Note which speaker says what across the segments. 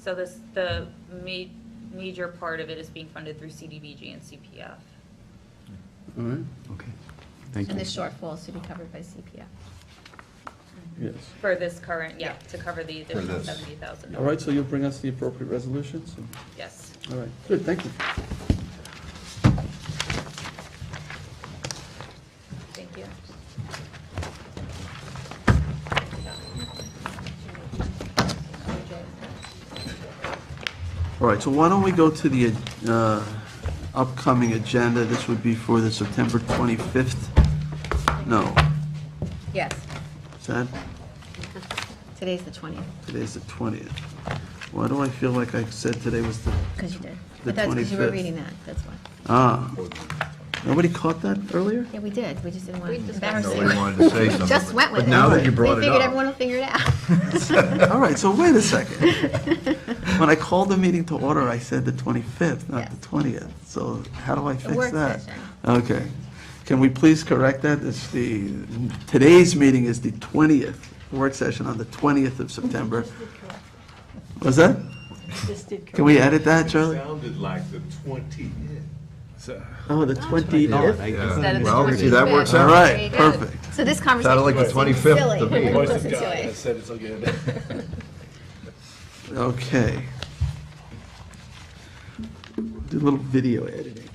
Speaker 1: So this, the ma- major part of it is being funded through CDBG and CPF.
Speaker 2: All right,
Speaker 3: Okay, thank
Speaker 4: And the
Speaker 3: you.
Speaker 4: shortfalls to be covered by CPF.
Speaker 2: yes.
Speaker 1: For this current, yeah, to cover the additional
Speaker 5: this.
Speaker 1: seventy thousand.
Speaker 2: All right, so you'll bring us the appropriate resolutions? and-
Speaker 1: Yes.
Speaker 2: All right, good, thank you.
Speaker 1: Thank you.
Speaker 2: All right, so why don't we go to the uh, upcoming agenda? This would be for the September 25th? No,
Speaker 4: Yes,
Speaker 2: is that,
Speaker 4: today's the 20th,
Speaker 2: today's the 20th. Why do I feel like I said today was the,
Speaker 4: because you did.
Speaker 2: The
Speaker 4: But that's because you were
Speaker 2: 25th.
Speaker 4: reading that, that's why.
Speaker 2: ah, nobody caught that earlier?
Speaker 4: Yeah, we did, we just didn't want
Speaker 1: We
Speaker 4: to
Speaker 1: discussed
Speaker 4: embarrass
Speaker 1: it.
Speaker 5: Nobody wanted
Speaker 4: anyone.
Speaker 5: to say
Speaker 4: We
Speaker 5: something.
Speaker 4: just went with it.
Speaker 5: But now that you brought
Speaker 4: We
Speaker 5: it
Speaker 4: figured
Speaker 5: up,
Speaker 4: everyone will figure it out.
Speaker 2: All right, so wait a second. When I called the meeting to order, I said the 25th, not the
Speaker 4: Yes.
Speaker 2: 20th. So how do I fix
Speaker 4: work
Speaker 2: that?
Speaker 4: session.
Speaker 2: Okay. Can we please correct that? It's the, today's meeting is the 20th, work session on the 20th of September. Was that? Can we edit that, Charlie?
Speaker 6: Sounded like the twenty. So,
Speaker 2: Oh, the 20th?
Speaker 1: Instead of the
Speaker 5: well, see, that
Speaker 1: 25th.
Speaker 5: works
Speaker 2: All
Speaker 5: out.
Speaker 1: There you
Speaker 2: right,
Speaker 1: go.
Speaker 2: perfect.
Speaker 4: So this conversation
Speaker 5: like the
Speaker 4: was silly.
Speaker 5: 25th to me.
Speaker 4: Let's
Speaker 6: voice of
Speaker 4: listen
Speaker 6: God,
Speaker 4: to
Speaker 6: I
Speaker 4: it.
Speaker 6: said it's okay.
Speaker 2: Okay. Do a little video editing.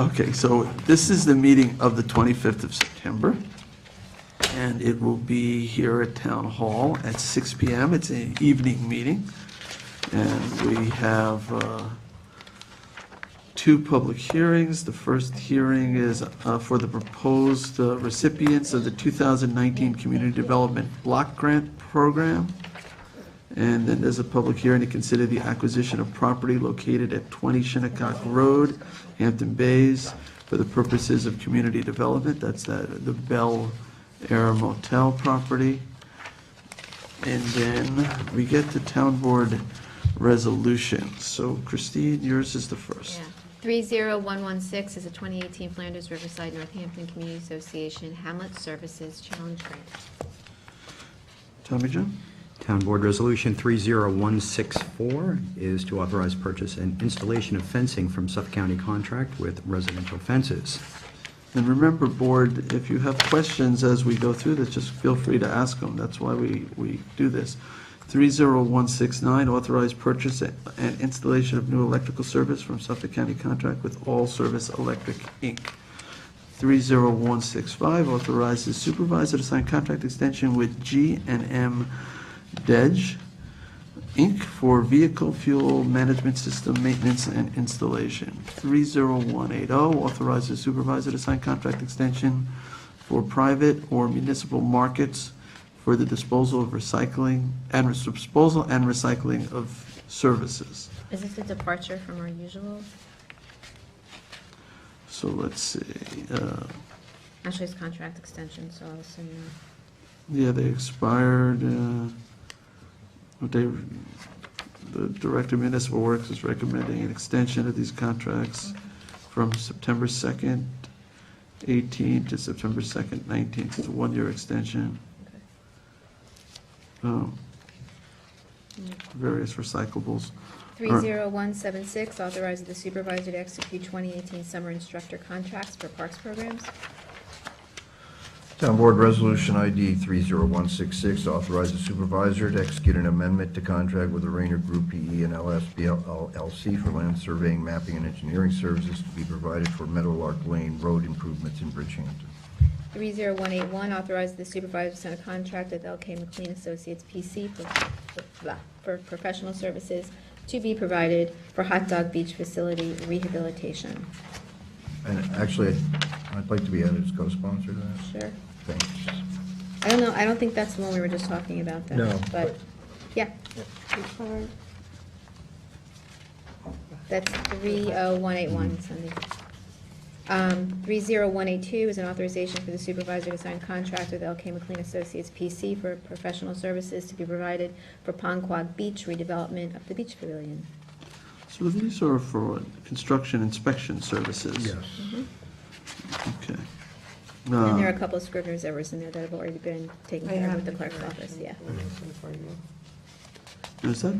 Speaker 2: Okay, so this is the meeting of the 25th of September, and it will be here at Town Hall at 6 PM. It's an evening meeting, and we have uh, two public hearings. The first hearing is uh, for the proposed uh, recipients of the 2019 Community Development Block Grant Program. And then there's a public hearing to consider the acquisition of property located at 20 Shinnecock Road, Hampton Bays, for the purposes of community development. That's that, the Bel Air Motel property. And then we get to town board resolutions. So Christine, yours is the first.
Speaker 4: Yeah. 30116 is a 2018 Flanders Riverside Northampton Community Association Hamlet Services Challenge Grant.
Speaker 2: Tommy John?
Speaker 3: Town Board Resolution 30164 is to authorize purchase and installation of fencing from Suffolk County contract with residential fences.
Speaker 2: And remember, board, if you have questions as we go through this, just feel free to ask them. That's why we, we do this. 30169, authorize purchase and installation of new electrical service from Suffolk County contract with All Service Electric, Inc. 30165, authorizes supervisor to sign contract extension with G and M Dej, Inc. for vehicle fuel management system maintenance and installation. 30180, authorizes supervisor to sign contract extension for private or municipal markets for the disposal of recycling and res- disposal and recycling of services.
Speaker 4: Is this a departure from our usual?
Speaker 2: So let's see, uh,
Speaker 4: Actually, it's contract extension, so I'll assume not.
Speaker 2: yeah, they expired, uh, they, the Director of Municipal Works is recommending an extension of these contracts from September 2nd, 18 to September 2nd, 19. It's a one-year extension. Um, Various recyclables. All right.
Speaker 4: 30176 authorizes the supervisor to execute 2018 summer instructor contracts for parks programs.
Speaker 5: Town Board Resolution ID 30166 authorizes supervisor to execute an amendment to contract with the Rayner Group PE and LSBL LLC for land surveying, mapping, and engineering services to be provided for Meadowlark Lane Road improvements in Bridgehampton.
Speaker 4: 30181 authorizes the supervisor to sign a contract with LK McLean Associates PC for- for blah, for professional services to be provided for hot dog beach facility rehabilitation.
Speaker 5: And actually, I'd like to be added as co-sponsor to that.
Speaker 4: Sure.
Speaker 5: Thanks.
Speaker 4: I don't know, I don't think that's the one we were just talking about, though.
Speaker 5: No,
Speaker 4: But,
Speaker 5: but-
Speaker 4: yeah. That's 30181, Sunday. Um, 30182 is an authorization for the supervisor to sign contract with LK McLean Associates PC for professional services to be provided for Ponquag Beach redevelopment of the beach pavilion.
Speaker 2: So these are for construction inspection services?
Speaker 5: Yes.
Speaker 4: Mm-hmm.
Speaker 2: Okay.
Speaker 4: And there are
Speaker 2: Uh,
Speaker 4: a couple of scrivener's errors in there that have already been taken
Speaker 7: I
Speaker 4: care of
Speaker 7: have
Speaker 4: with the
Speaker 7: the
Speaker 4: clerk's
Speaker 7: correction.
Speaker 4: office, yeah.
Speaker 7: Correction for you.
Speaker 2: Is that